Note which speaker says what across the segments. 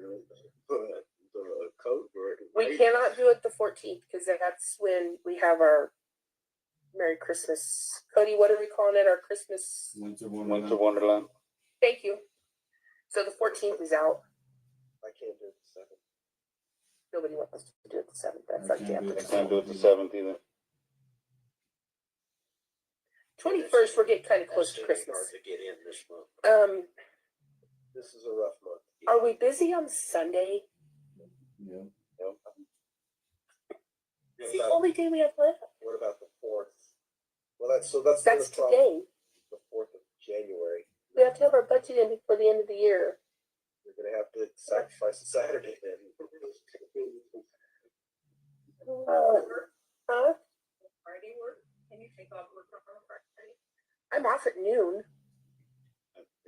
Speaker 1: the, the code word.
Speaker 2: We
Speaker 1: right?
Speaker 2: cannot do it the fourteenth because that's when we have our Merry Christmas. Cody, what are we calling it? Our Christmas.
Speaker 3: Winter
Speaker 4: Winter
Speaker 3: Wonderland.
Speaker 4: Wonderland.
Speaker 2: Thank you. So the fourteenth is out.
Speaker 1: I can't do it the second.
Speaker 2: Nobody wants us to do it the seventh. That's
Speaker 3: I
Speaker 2: like
Speaker 3: can't do
Speaker 2: the
Speaker 3: it.
Speaker 4: I can't do it the seventh either.
Speaker 2: twenty first. We're getting kind of close to
Speaker 5: That's gonna be
Speaker 2: Christmas.
Speaker 5: Hard to get in this month.
Speaker 2: Um,
Speaker 1: This is a rough month.
Speaker 2: are we busy on Sunday?
Speaker 3: Yeah.
Speaker 1: Yep.
Speaker 2: It's
Speaker 1: What
Speaker 2: the
Speaker 1: about,
Speaker 2: only day we have left.
Speaker 1: what about the fourth? Well, that's, so that's. the
Speaker 2: That's
Speaker 1: other problem,
Speaker 2: today.
Speaker 1: The fourth of January,
Speaker 2: We have to have our budget in before the end of the year.
Speaker 1: you're gonna have to sacrifice Saturday then.
Speaker 2: Uh, huh?
Speaker 6: Friday work? Can you take off work from home Friday?
Speaker 2: I'm off at noon.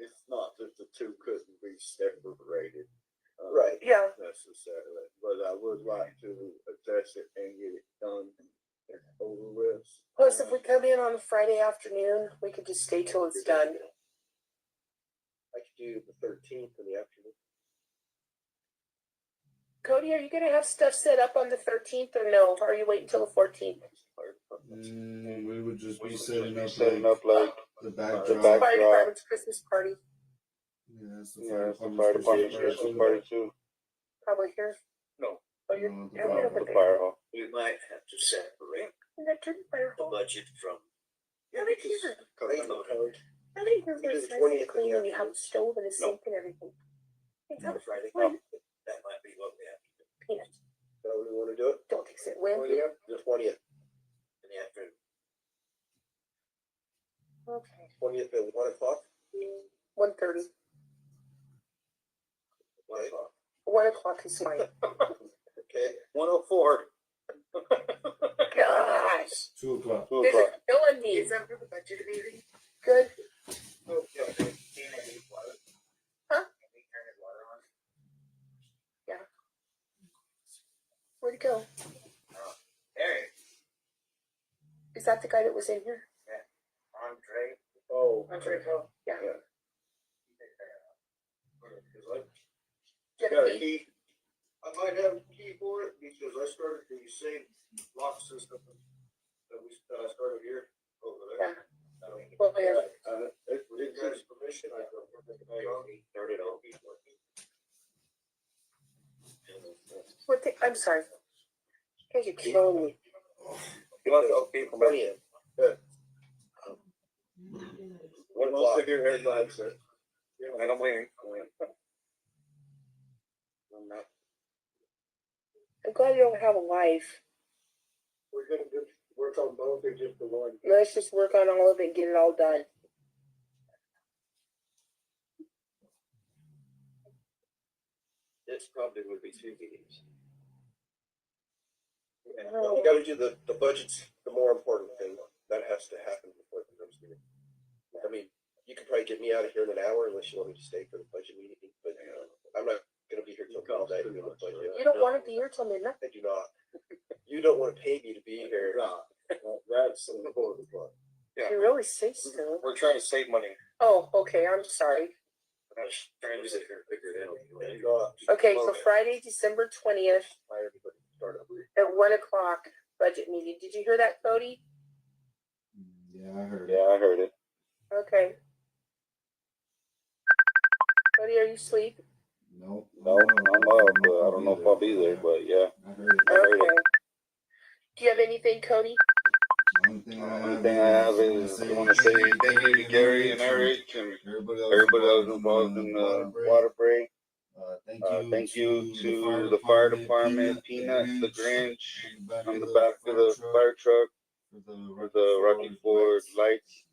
Speaker 5: It's not that the two couldn't be separated. uh,
Speaker 1: Right.
Speaker 2: Yeah.
Speaker 5: Necessarily, but I would like to address it and get it done and over with.
Speaker 2: Plus, if we come in on a Friday afternoon, we could just stay till it's done.
Speaker 1: I could do the thirteenth in the afternoon.
Speaker 2: Cody, are you gonna have stuff set up on the thirteenth or no? Are you waiting till the fourteenth?
Speaker 3: Mm, we would just be
Speaker 4: We
Speaker 3: setting
Speaker 4: should be
Speaker 3: up
Speaker 4: Setting
Speaker 3: like
Speaker 4: up like,
Speaker 3: the
Speaker 4: back-
Speaker 3: backdrop.
Speaker 2: Fire department's Christmas party,
Speaker 3: Yeah, that's the
Speaker 4: yeah,
Speaker 3: fire
Speaker 4: it's the fire department's
Speaker 3: department's
Speaker 4: Christmas
Speaker 3: Christmas
Speaker 4: party
Speaker 3: party.
Speaker 4: too.
Speaker 2: probably here.
Speaker 5: No.
Speaker 2: Oh, you're.
Speaker 3: No, the
Speaker 2: you're
Speaker 3: fire-
Speaker 2: over
Speaker 4: The
Speaker 2: there.
Speaker 4: fire hall.
Speaker 5: We might have to separate
Speaker 2: Isn't that true? Fire
Speaker 5: the
Speaker 2: hall?
Speaker 5: budget from.
Speaker 2: Yeah, they can.
Speaker 1: Thank you,
Speaker 5: Because-
Speaker 1: Code.
Speaker 2: I think you're
Speaker 1: We do
Speaker 2: very
Speaker 1: the
Speaker 2: nice
Speaker 1: 20th
Speaker 2: and
Speaker 1: in
Speaker 2: clean
Speaker 1: the
Speaker 2: when you have a
Speaker 1: afternoon.
Speaker 2: stove and a
Speaker 5: No.
Speaker 2: sink and everything. It's
Speaker 5: No,
Speaker 2: not
Speaker 5: Friday.
Speaker 2: fun.
Speaker 5: That might be what we have to do
Speaker 2: Peanuts.
Speaker 1: Nobody wanna do it?
Speaker 2: Don't fix it,
Speaker 5: Oh,
Speaker 2: Will.
Speaker 1: The twentieth,
Speaker 5: in the afternoon.
Speaker 2: Okay.
Speaker 1: twentieth at one o'clock?
Speaker 2: One thirty.
Speaker 5: One o'clock.
Speaker 2: One o'clock is fine.
Speaker 1: Okay,
Speaker 5: One oh four.
Speaker 2: Gosh.
Speaker 3: Two o'clock.
Speaker 4: Two
Speaker 2: There's a
Speaker 4: o'clock.
Speaker 2: villain needs.
Speaker 6: that for the budget meeting?
Speaker 2: Good.
Speaker 5: Oh,
Speaker 2: Huh?
Speaker 5: Huh?
Speaker 2: Where'd he go?
Speaker 5: Eric,
Speaker 2: Is that the guy that was in here?
Speaker 5: Andre.
Speaker 1: oh.
Speaker 2: Yeah.
Speaker 5: You got a
Speaker 2: Jeff,
Speaker 5: key? I might have a key for it because I started the same lock system that we, that I started here over there.
Speaker 2: Well, yeah.
Speaker 5: Uh, if we didn't have his permission, I don't think I started all these
Speaker 2: What the, I'm sorry. You guys are killing me.
Speaker 5: You want to keep
Speaker 1: Twentieth,
Speaker 5: One
Speaker 1: o'clock.
Speaker 5: Most of your headlines are. And I'm waiting. I'm not.
Speaker 2: I'm glad you don't have a life.
Speaker 1: we're gonna do, work on both or just the one?
Speaker 2: Let's just work on all of it and get it all done.
Speaker 5: This probably would be two meetings.
Speaker 1: Well, We gotta do the, the budget's the more important thing, that has to happen before the next meeting. I mean, you could probably get me out of here in an hour unless you want me to stay for the budget meeting, but uh, I'm not gonna be here till midnight doing the budget.
Speaker 2: You don't want to be here till midnight.
Speaker 1: I do not. You don't wanna pay me to be here.
Speaker 5: That's important part. Yeah.
Speaker 2: You really say so.
Speaker 5: We're trying to save money.
Speaker 2: Oh, okay. I'm sorry.
Speaker 5: We're not trying to sit here and figure it
Speaker 1: I do
Speaker 5: out.
Speaker 1: not
Speaker 2: Okay, so Friday, December twentieth
Speaker 1: hire everybody to start up.
Speaker 2: at one o'clock budget meeting. Did you hear that, Cody?
Speaker 3: Mm, Yeah, I heard.
Speaker 4: Yeah,
Speaker 3: it.
Speaker 4: I heard it.
Speaker 2: Okay. Cody, are you asleep?
Speaker 3: Nope.
Speaker 4: No, I'm up, but I don't know if I'll be there, but yeah.
Speaker 3: I heard it.
Speaker 4: I heard
Speaker 2: Okay.
Speaker 4: it.
Speaker 2: Do you have anything, Cody?
Speaker 3: The Only thing I
Speaker 4: Only
Speaker 3: have
Speaker 4: thing I have is, I wanna say thank you to Gary and Eric and
Speaker 3: Everybody else
Speaker 4: everybody that was involved in the water break.
Speaker 3: Uh, thank
Speaker 4: Uh,
Speaker 3: you.
Speaker 4: thank you to the fire department, Peanuts, the Grinch,
Speaker 3: Grinch,
Speaker 4: on the back of the fire truck, for the Rocky Ford lights,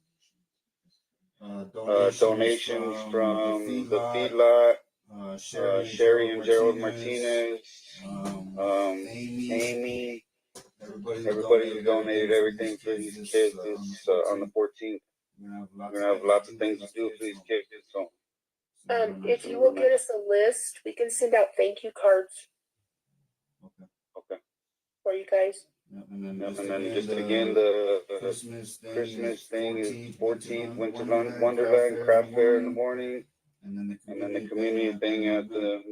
Speaker 4: uh, donations from the feedlot,
Speaker 3: Uh,
Speaker 4: uh, Sherry and Gerald Martinez,
Speaker 3: Um,
Speaker 4: um,
Speaker 3: Amy,
Speaker 4: Amy,
Speaker 3: everybody,
Speaker 4: everybody who donated everything for these kids is, uh, on the fourteenth.
Speaker 3: We're
Speaker 4: We're gonna have lots of things to do for these kids, so.
Speaker 2: Um,
Speaker 3: Mm-hmm.
Speaker 2: if you will get us a list, we can send out thank you cards
Speaker 3: Okay.
Speaker 2: for you guys.
Speaker 3: Yep, And then,
Speaker 4: And then just again, the, the
Speaker 3: Christmas thing,
Speaker 4: Christmas thing is fourteenth, Winter
Speaker 3: Wonderland,
Speaker 4: Wonderland Craft Fair in the
Speaker 3: morning,
Speaker 4: morning,
Speaker 3: and then the
Speaker 4: and then the community thing at the